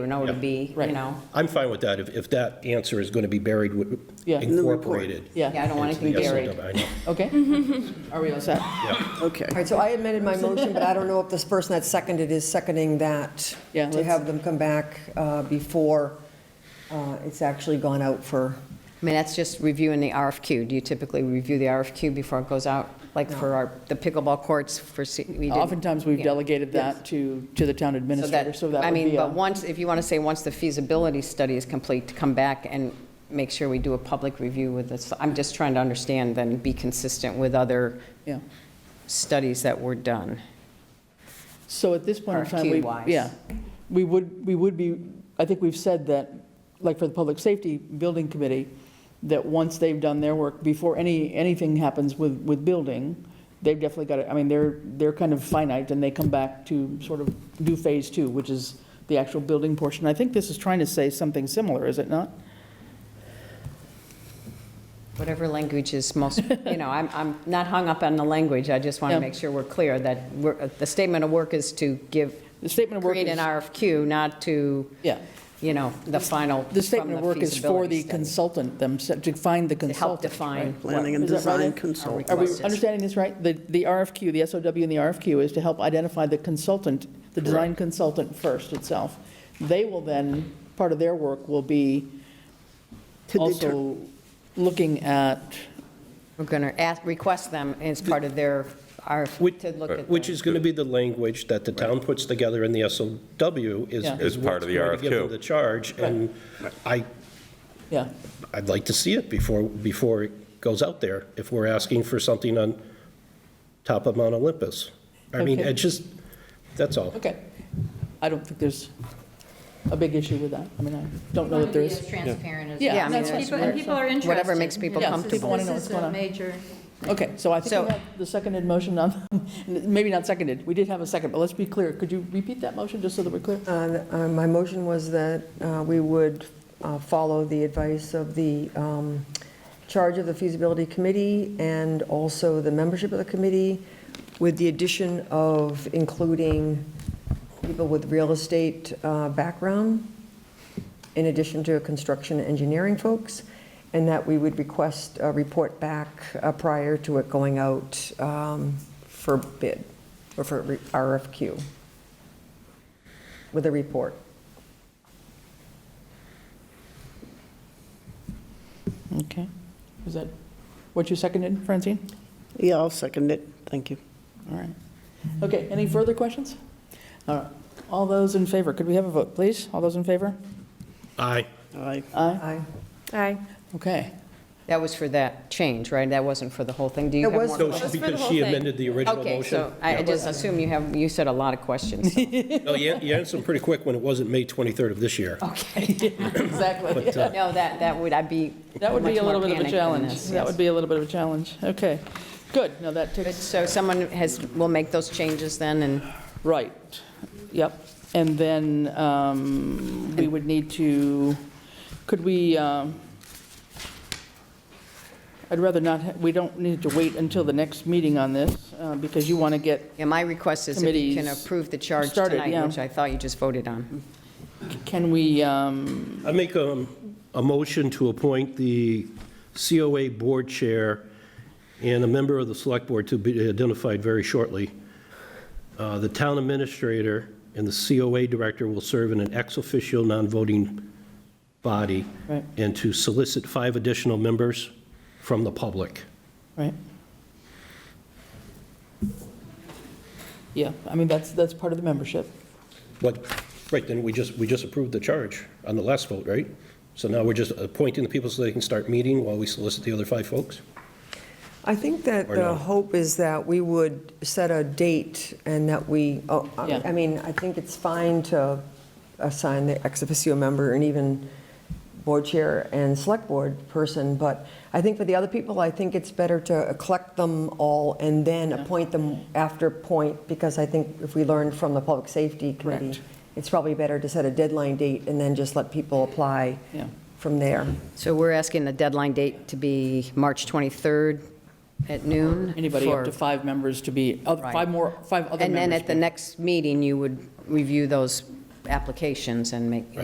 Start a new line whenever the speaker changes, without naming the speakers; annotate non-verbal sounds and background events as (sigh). you know, to be, you
Right.
know.
I'm fine with that, if, if that answer is going to be buried, with-
Yeah. In
incorporated.
the
report.
Yeah, I
Yeah,
don't want it to be
into the
buried.
SOW,
(laughs)
I know.
okay. (laughs) Are we all set?
Okay.
All right, so I amended my motion, but I don't know if this person that seconded is seconding that.
Yeah,
To
let's-
have them come back uh, before uh, it's actually gone out for,
I mean, that's just reviewing the RFQ. Do you typically review the RFQ before it goes out? Like for our, the pickleball courts for, C- we did.
Oftentimes, we've
Yeah.
delegated that to, to the town
So
administrator,
that-
so that
I
would
mean,
be
but
a,
once, if you want to say, once the feasibility study is complete, to come back and make sure we do a public review with this. I'm just trying to understand then, be consistent with other
yeah.
studies that were done.
So at this point in time, we,
RFQ-wise.
yeah, we would, we would be, I think we've said that, like for the Public Safety Building Committee, that once they've done their work, before any, anything happens with, with building, they've definitely got it, I mean, they're, they're kind of finite, and they come back to sort of do phase two, which is the actual building portion. I think this is trying to say something similar, is it not?
Whatever language is most, you
(laughs)
know, I'm, I'm not hung up on the language. I just want
Yeah.
to make sure we're clear that we're, the statement of work is to give,
The statement of work is.
create an RFQ, not to,
Yeah.
you know, the final.
The statement of
from
work is for
feasibility
the
study.
consultant themselves, to find the
To help
consultant.
define.
right?
Planning and
Is that right,
design
Ed?
consultant.
Are we
Request is-
understanding this right? The, the RFQ, the SOW and the RFQ is to help identify the consultant, the design consultant first itself. They will then, part of their work will be
To deter-
also looking at,
We're going to ask, request them as part of their, RFQ
Which- uh,
to look at.
Which
the-
is going to be the language that the town puts together in the SOW is.
Yeah.
Is part of the
what's going to give them
RFQ.
The charge, and I,
yeah,
I'd like to see it before, before it goes out there, if we're asking for something on top of Mount Olympus. I mean,
Okay.
it just, that's all.
okay. I don't think there's a big issue with that. I mean, I don't know that
want to
there
be
is.
as transparent as.
Yeah, I mean,
possible.
that's-
People- And people are interested.
Whatever makes people
This is-
comfortable.
People wanna know what's going on.
This is a major.
Okay, so I think
So-
we have the seconded motion on, (laughs) maybe not seconded, we did have a second, but let's be clear. Could you repeat that motion, just so that we're clear?
uh, uh, my motion was that uh, we would uh, follow the advice of the um, charge of the feasibility committee and also the membership of the committee with the addition of including people with real estate uh, background. in addition to construction engineering folks, and that we would request a report back uh, prior to it going out um, for bid, or for re- RFQ, with a report.
Okay. Is that what you seconded, Francine?
Yeah, I'll second it. Thank you.
All right. Okay, any further questions? All right. All those in favor, could we have a vote, please? All those in favor?
Aye.
Aye.
Aye.
Aye.
Aye.
Okay.
That was for that change, right? That wasn't for the whole thing? Do you
It
have
was
more
for
No,
questions?
she-
Just for the
because
whole
she
thing.
amended the original motion.
Okay, so I I
Yeah.
just assume you have, you said a lot of questions. so-
No, you you answered them pretty quick when it wasn't May 23rd of this year.
Okay. (laughs)
Exactly.
No, that, that would, I'd be
That would be
much
a
more
little bit of
panicked than
a challenge.
this,
That
yes.
would be a little bit of a challenge. Okay. Good. Now that
But
takes,
So someone has, will make those changes then, and
right. Yep. And then um, we would need to, could we, um, I'd rather not, ha- we don't need to wait until the next meeting on this uh, because you want to get
yeah, my request is if you can
Committees
approve the charge
started, yeah.
tonight, which I thought you just voted on.
Can we, um,
I make um, a motion to appoint the COA Board Chair and a member of the Select Board to be identified very shortly. Uh, The Town Administrator and the COA Director will serve in an ex officio non-voting body
Right.
and to solicit five additional members from the public.
right? Yeah, I mean, that's, that's part of the membership.
But, right, then we just, we just approved the charge on the last vote, right? So now we're just appointing the people so they can start meeting while we solicit the other five folks?
I think that
Or
the
no?
hope is that we would set a date and that we, oh,
Yeah.
I I mean, I think it's fine to assign the ex officio member and even board chair and select board person, but I think for the other people, I think it's better to collect them all and then appoint them after point, because I think if we learned from the Public Safety Committee,
Correct.
it's probably better to set a deadline date and then just let people apply
Yeah.
from there.
So we're asking the deadline date to be March 23rd at noon?
Anybody up
for-
to five members to be, oh,
Right.
five more, five other members.
And then at the next meeting, you would review those applications and make,